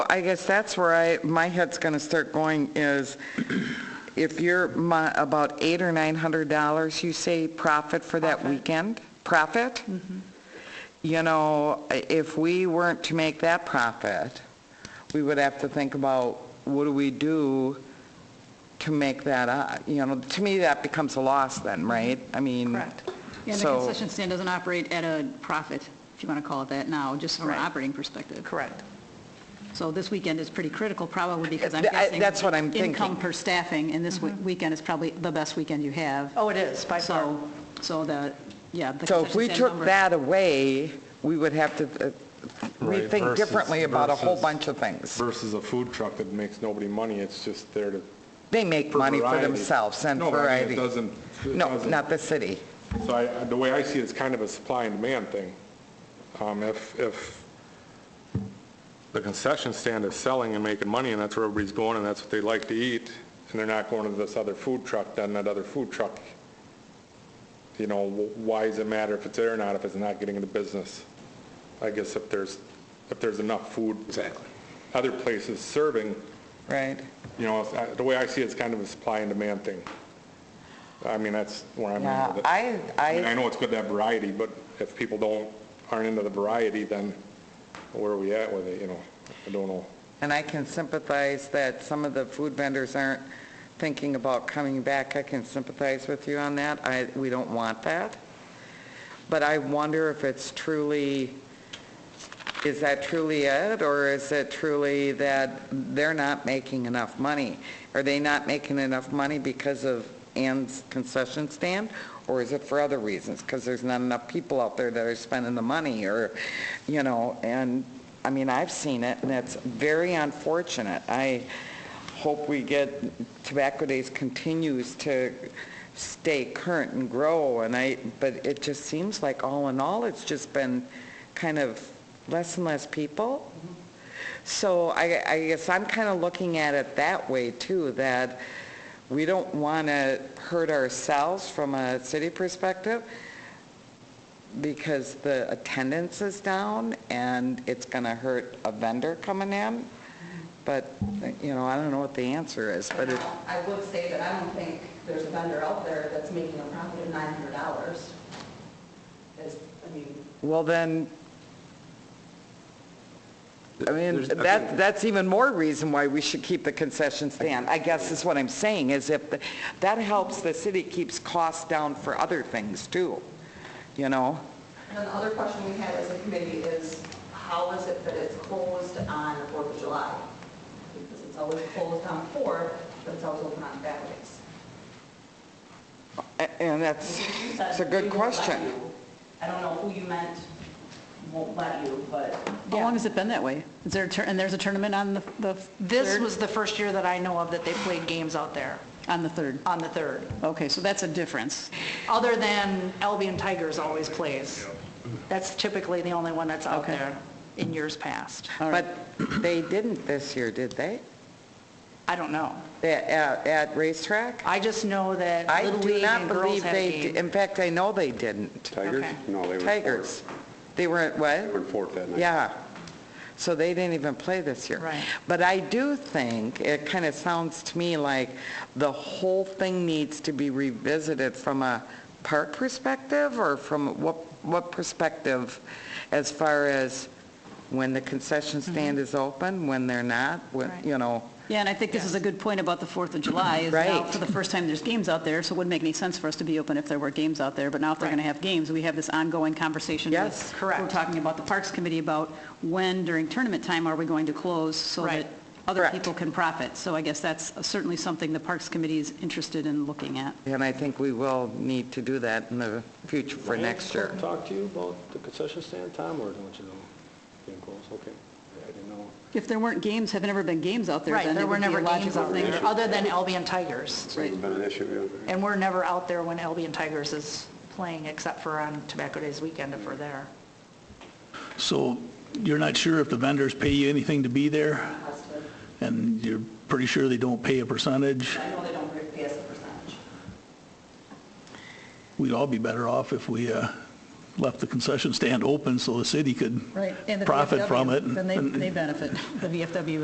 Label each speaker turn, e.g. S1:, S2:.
S1: I guess that's where I, my head's going to start going is if you're mo- about eight or nine hundred dollars, you say profit for that weekend? Profit? You know, i- if we weren't to make that profit, we would have to think about what do we do to make that up? You know, to me, that becomes a loss then, right? I mean.
S2: Correct.
S3: Yeah, the
S1: so-
S3: concession stand doesn't operate at a profit, if you want to call it that now, just from an
S2: Right.
S3: operating perspective.
S2: Correct.
S3: So this weekend is pretty critical, probably because I'm
S1: Th- I-
S3: guessing.
S1: that's what I'm
S3: Income
S1: thinking.
S3: per staffing, and this we- weekend is probably the best weekend you have.
S2: Oh, it is, by far.
S3: So, so the, yeah. the
S1: So if
S3: concession
S1: we
S3: stand
S1: took
S3: number-
S1: that away, we would have to uh,
S4: Right,
S1: rethink
S4: versus-
S1: differently about a whole
S4: versus-
S1: bunch of things.
S4: Versus a food truck that makes nobody money, it's just there to.
S1: They make
S4: for
S1: money for
S4: variety.
S1: themselves and
S4: No, but I mean,
S1: variety.
S4: It doesn't. it
S1: No,
S4: doesn't.
S1: not the city.
S4: So I, the way I see it, it's kind of a supply and demand thing. Um, if, if the concession stand is selling and making money, and that's where everybody's going, and that's what they like to eat, and they're not going to this other food truck, then that other food truck, you know, wh- why does it matter if it's there or not, if it's not getting into business? I guess if there's, if there's enough food. Exactly. Other places serving,
S1: Right.
S4: you know, it's- I- the way I see it, it's kind of a supply and demand thing. I mean, that's where I'm at with
S1: Yeah,
S4: it.
S1: I,
S4: I mean, I
S1: I,
S4: know it's good to have variety, but if people don't, aren't into the variety, then where are we at with it, you know? I don't know.
S1: and I can sympathize that some of the food vendors aren't thinking about coming back. I can sympathize with you on that. I, we don't want that. But I wonder if it's truly, is that truly it, or is it truly that they're not making enough money? Are they not making enough money because of Ann's concession stand, or is it for other reasons? Because there's not enough people out there that are spending the money, or, you know, and, I mean, I've seen it, and it's very unfortunate. I hope we get, Tobacco Days continues to stay current and grow, and I, but it just seems like all in all, it's just been kind of less and less people. So I, I guess I'm kind of looking at it that way too, that we don't want to hurt ourselves from a city perspective because the attendance is down and it's going to hurt a vendor coming in. But, you know, I don't know what the answer is, but it,
S5: I would say that I don't think there's a vendor out there that's making a profit of nine hundred dollars. As, I mean,
S1: well then, I mean,
S6: There's- I
S1: that,
S6: think-
S1: that's even more reason why we should keep the concession stand. I guess is what I'm saying, is if, the- that helps the city keeps costs down for other things too, you know?
S5: and then the other question we had as a committee is, how is it that it's closed on the Fourth of July? Because it's always closed on Fourth, but it's always open on Saturdays.
S1: A- And that's,
S5: You said
S1: it's a good
S5: we won't let
S1: question.
S5: you. I don't know who you meant won't let you, but
S3: How long has it been that way? Is there, a tur- and there's a tournament on the, the
S2: This
S3: third?
S2: was the first year that I know of that they played games out there
S3: On the 3rd.
S1: Uh,
S2: on the 3rd,
S3: Okay, so that's a difference.
S2: other than Albion Tigers always plays. That's typically the only one that's out
S3: Okay.
S2: there in years past.
S3: All right.
S1: But they didn't this year, did they?
S2: I don't know.
S1: They- At, at racetrack?
S2: I just know that
S1: I
S2: Little
S1: do
S2: League
S1: not
S2: and girls
S1: believe
S2: had
S1: they,
S2: a
S1: d-
S2: game.
S1: in fact, I know they didn't.
S6: Tigers?
S2: Okay.
S6: No, they were.
S1: Tigers. They were at
S6: They were in
S1: what?
S6: fourth that night.
S1: Yeah. So they didn't even play this year.
S2: Right.
S1: But I do think, it kind of sounds to me like the whole thing needs to be revisited from a park perspective or from what, what perspective as far as when the concession stand is open, when they're not, when,
S2: Mm-hmm. Right.
S1: you know?
S3: Yeah, and I think this is a good point about the 4th of July, is now
S1: Right.
S3: for the first time there's games out there, so it wouldn't make any sense for us to be open if there were games out there, but now if they're
S2: Right.
S3: going to have games, we have this ongoing conversation. with-
S1: Yes.
S2: Correct.
S3: We're talking about the Parks Committee about when during tournament time are we going to close so that
S2: Right.
S3: other
S1: Correct.
S3: people can profit? So I guess that's certainly something the Parks Committee is interested in looking at.
S1: And I think we will need to do that in the future for
S6: Ryan,
S1: next year.
S6: Talk to you about the concession stand, Tom, or don't you know? Getting close, okay. I didn't know.
S3: If there weren't games, have never been games out there,
S2: Right,
S3: then
S2: there
S3: it
S2: were
S3: would be a
S2: never games
S3: logical
S2: out
S3: thing.
S2: there, other than Albion Tigers.
S6: It's never been an issue, yeah.
S2: And we're never out there when Albion Tigers is playing, except for on Tobacco Days weekend if we're there.
S7: So you're not sure if the vendors pay you anything to be there,
S5: custom,
S7: and you're pretty sure they don't pay a percentage?
S5: I know they don't pay us a percentage.
S7: We'd all be better off if we uh, left the concession stand open so the city could profit from it.
S3: Then they benefit. The VFW